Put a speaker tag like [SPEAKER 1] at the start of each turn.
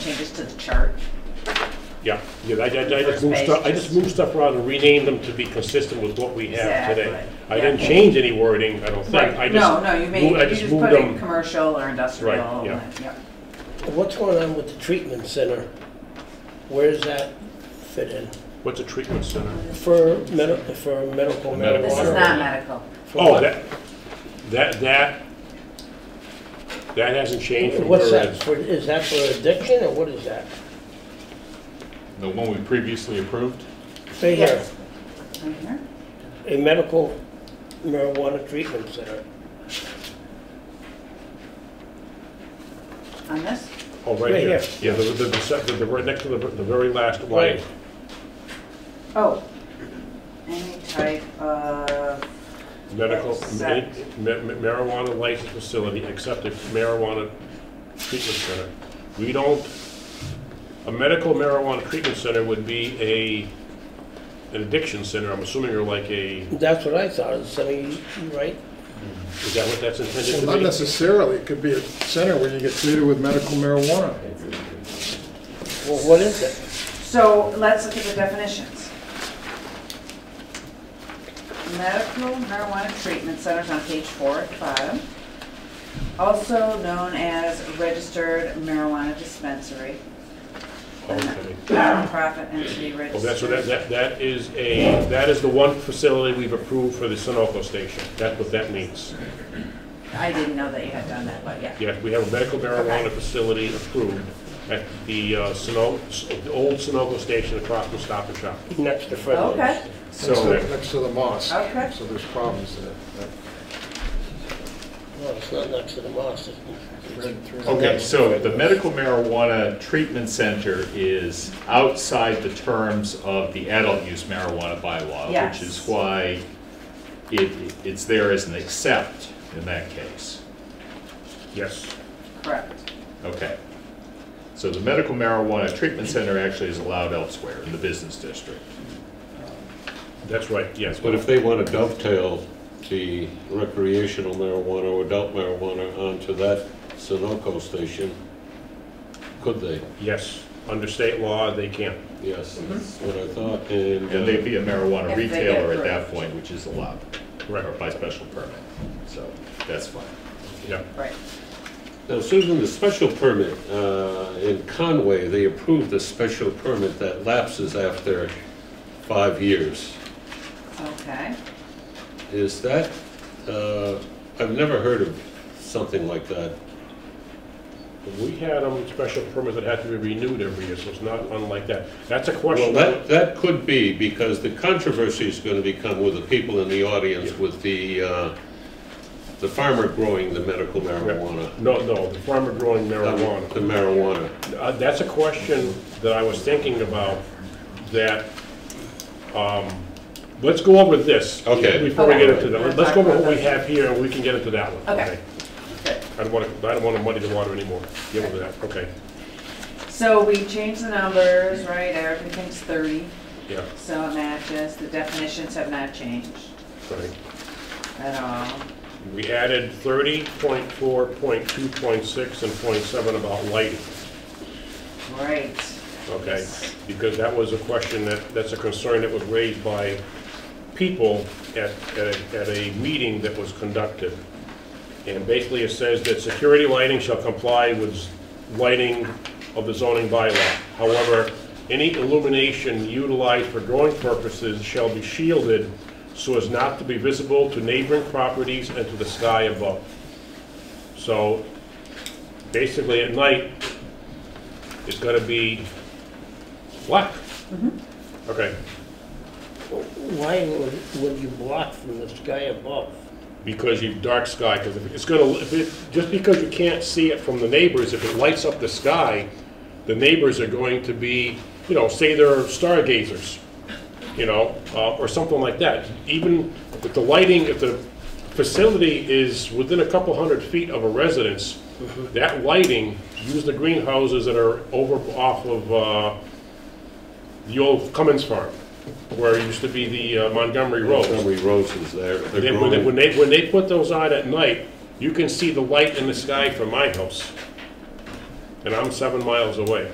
[SPEAKER 1] changes to the chart.
[SPEAKER 2] Yeah, yeah, I, I- I just
[SPEAKER 1] First
[SPEAKER 2] moved
[SPEAKER 1] page,
[SPEAKER 2] stuff, I
[SPEAKER 1] just-
[SPEAKER 2] just moved stuff around and renamed them to be consistent with what we have today.
[SPEAKER 1] Exactly,
[SPEAKER 2] I didn't
[SPEAKER 1] yeah.
[SPEAKER 2] change any wording, I don't think. I
[SPEAKER 1] No,
[SPEAKER 2] just
[SPEAKER 1] no, you made,
[SPEAKER 2] moved- I
[SPEAKER 1] you just
[SPEAKER 2] moved
[SPEAKER 1] put in
[SPEAKER 2] them-
[SPEAKER 1] commercial or industrial.
[SPEAKER 2] Right, yeah.
[SPEAKER 1] and- yeah.
[SPEAKER 3] What's going on with the treatment center? Where does that fit in?
[SPEAKER 2] What's a treatment center?
[SPEAKER 3] For medi, for medical marijuana?
[SPEAKER 2] Medical.
[SPEAKER 1] This is not medical.
[SPEAKER 3] For
[SPEAKER 2] Oh,
[SPEAKER 3] what?
[SPEAKER 2] that, that, that, that hasn't changed from where it
[SPEAKER 3] What's that,
[SPEAKER 2] is.
[SPEAKER 3] for, is that for addiction, or what is that?
[SPEAKER 4] The one we previously approved?
[SPEAKER 3] Right here,
[SPEAKER 1] Yes. Right here.
[SPEAKER 3] a medical marijuana treatment center.
[SPEAKER 1] On this,
[SPEAKER 2] Oh, right
[SPEAKER 3] Right
[SPEAKER 2] here.
[SPEAKER 3] here.
[SPEAKER 2] Yeah, the, the, the, se- the- the, right next to the, the very last line.
[SPEAKER 3] Right.
[SPEAKER 1] oh, any type of,
[SPEAKER 2] Medical, ma-
[SPEAKER 1] Except-
[SPEAKER 2] ma- marijuana licensed facility, except a marijuana treatment center. We don't, a medical marijuana treatment center would be a, an addiction center, I'm assuming you're like a,
[SPEAKER 3] That's what I thought, it's, I mean, right?
[SPEAKER 2] is that what that's intended
[SPEAKER 5] Well,
[SPEAKER 2] to
[SPEAKER 5] not
[SPEAKER 2] be?
[SPEAKER 5] necessarily, it could be a center where you get treated with medical marijuana.
[SPEAKER 3] Well, what is it?
[SPEAKER 1] so let's look at the definitions. Medical marijuana treatment centers on page four at the bottom, also known as registered marijuana dispensary,
[SPEAKER 2] Okay.
[SPEAKER 1] nonprofit entity registered.
[SPEAKER 2] Well, Oh, that's what, that, that that is a, that is the one facility we've approved for the Sunoco station. That's what that means.
[SPEAKER 1] I didn't know that you had done that, but yeah.
[SPEAKER 2] Yeah, we have a medical marijuana
[SPEAKER 1] Okay.
[SPEAKER 2] facility approved at the uh, Suno, the old Sunoco station across from Stop and Shop.
[SPEAKER 3] Next to Fred's.
[SPEAKER 1] Okay,
[SPEAKER 2] So.
[SPEAKER 5] Next to- Next to the mosque.
[SPEAKER 1] Okay.
[SPEAKER 5] So there's problems there.
[SPEAKER 3] No, it's not next to the mosque. it's- it's-
[SPEAKER 4] Okay, so the medical marijuana treatment center is outside the terms of the adult use marijuana bylaw,
[SPEAKER 1] Yes.
[SPEAKER 4] which is why it, it's there as an except in that case.
[SPEAKER 2] Yes.
[SPEAKER 1] correct.
[SPEAKER 4] Okay. So the medical marijuana treatment center actually is allowed elsewhere in the business district.
[SPEAKER 2] That's right, yes.
[SPEAKER 6] But if they want to dovetail the recreational marijuana or adult marijuana onto that Sunoco station, could they?
[SPEAKER 2] Yes, under state law, they can.
[SPEAKER 6] Yes, that's what I thought, and,
[SPEAKER 4] And they'd
[SPEAKER 6] uh,
[SPEAKER 4] be a marijuana
[SPEAKER 1] If they get
[SPEAKER 4] retailer at that
[SPEAKER 1] approved.
[SPEAKER 4] point, which is allowed.
[SPEAKER 2] Correct.
[SPEAKER 4] Or by special permit, so that's fine.
[SPEAKER 2] Yeah.
[SPEAKER 1] Right.
[SPEAKER 6] uh, now Susan, the special permit, uh, in Conway, they approved the special permit that lapses after five years.
[SPEAKER 1] Okay.
[SPEAKER 6] Is that, uh, I've never heard of something like that.
[SPEAKER 2] We had um, special permits that had to be renewed every year, so it's not unlike that. That's a
[SPEAKER 6] Well,
[SPEAKER 2] question.
[SPEAKER 6] that, that could be, because the controversy is going to become with the people in the audience, with the, uh, the farmer growing the medical marijuana.
[SPEAKER 2] No, no, the farmer growing marijuana.
[SPEAKER 6] The marijuana.
[SPEAKER 2] Uh, That's a question that I was thinking about, that, um, let's go over this.
[SPEAKER 6] Okay.
[SPEAKER 2] Before we get into
[SPEAKER 1] Okay.
[SPEAKER 2] that, let's go over what we have here, and we can get into that one.
[SPEAKER 1] Okay. Good.
[SPEAKER 2] I don't want to, I don't want to muddy the water anymore. Get over that, okay,
[SPEAKER 1] So we changed the numbers, right? Everything's 30,
[SPEAKER 2] yeah,
[SPEAKER 1] so it matches. The definitions have not changed
[SPEAKER 2] right.
[SPEAKER 1] at all.
[SPEAKER 2] We added thirty point four, point two, point six, and point seven about lighting,
[SPEAKER 1] Right.
[SPEAKER 2] okay? Because that was a question that, that's a concern that was raised by people at, at a- at a meeting that was conducted. And basically, it says that security lighting shall comply with lighting of the zoning bylaw. However, any illumination utilized for drawing purposes shall be shielded so as not to be visible to neighboring properties and to the sky above. So basically, at night, it's gonna be black. Okay,
[SPEAKER 3] Why would, would you block from the sky above?
[SPEAKER 2] because you, dark sky, because if it's gonna, if it, just because you can't see it from the neighbors, if it lights up the sky, the neighbors are going to be, you know, say they're stargazers, you know, uh, or something like that. Even if the lighting, if the facility is within a couple hundred feet of a residence, that lighting, use the greenhouses that are over, off of, uh, the old Cummins Farm, where it used to be the uh, Montgomery Road.
[SPEAKER 6] Montgomery roses there. They're
[SPEAKER 2] They- When they, when
[SPEAKER 6] growing.
[SPEAKER 2] they, when they put those on at night, you can see the light in the sky from my house. And I'm seven miles away.